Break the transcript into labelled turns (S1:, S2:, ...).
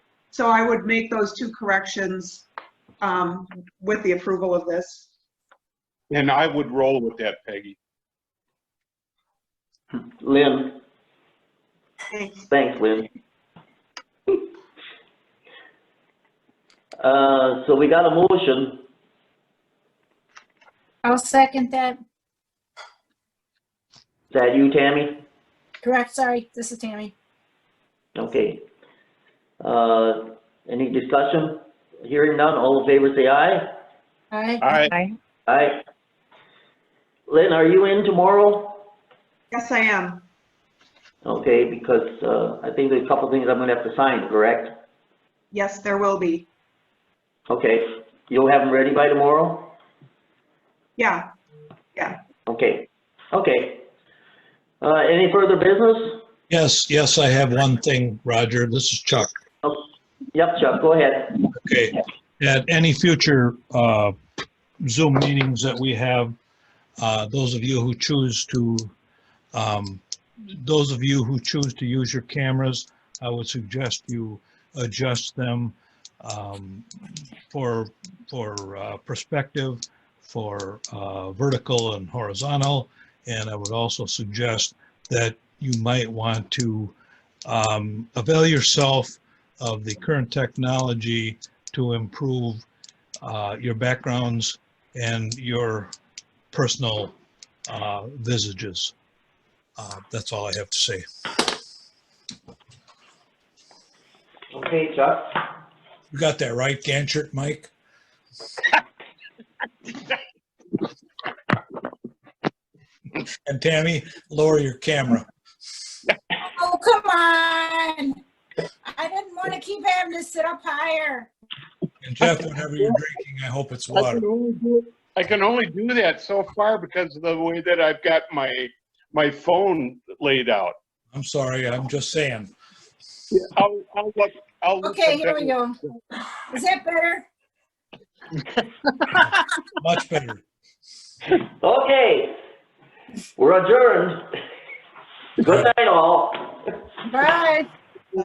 S1: So I would make those two corrections um, with the approval of this.
S2: And I would roll with that, Peggy.
S3: Lynn,
S1: Thanks.
S3: thanks, Lynn. Uh, so we got a motion.
S4: I'll second that.
S3: Is that you, Tammy?
S4: Correct, sorry, this is Tammy.
S3: Okay. Uh, any discussion? Hearing none, all in favor say aye.
S2: All
S4: Aye.
S2: right,
S5: Aye.
S3: Aye. Lynn, are you in tomorrow?
S1: Yes, I am.
S3: Okay, because, uh, I think there's a couple things I'm gonna have to sign, correct?
S1: Yes, there will be.
S3: Okay, you'll have them ready by tomorrow?
S1: Yeah,
S3: Okay, okay. Uh, any further business?
S6: Yes, yes, I have one thing, Roger. This is Chuck.
S3: Yep, Chuck, go ahead.
S6: Okay. At any future uh, Zoom meetings that we have, uh, those of you who choose to, um, those of you who choose to use your cameras, I would suggest you adjust them um, for, for uh, perspective, for uh, vertical and horizontal. And I would also suggest that you might want to um, avail yourself of the current technology to improve uh, your backgrounds and your personal uh, visages. Uh, That's all I have to say.
S3: Okay, Chuck.
S6: You got that right, Ganchert, Mike? And Tammy, lower your camera.
S4: Oh, come on! I didn't want to keep having to sit up higher.
S6: And Jeff, whatever you're drinking, I hope it's
S2: I
S6: water.
S2: can only do- I can only do that so far because of the way that I've got my, my phone laid out.
S6: I'm sorry, I'm just saying.
S2: I'll, I'll look, I'll. look
S4: Okay,
S2: for
S4: here we go. Is that better?
S6: Much better.
S3: Okay. We're adjourned. Good night, all.
S4: Bye.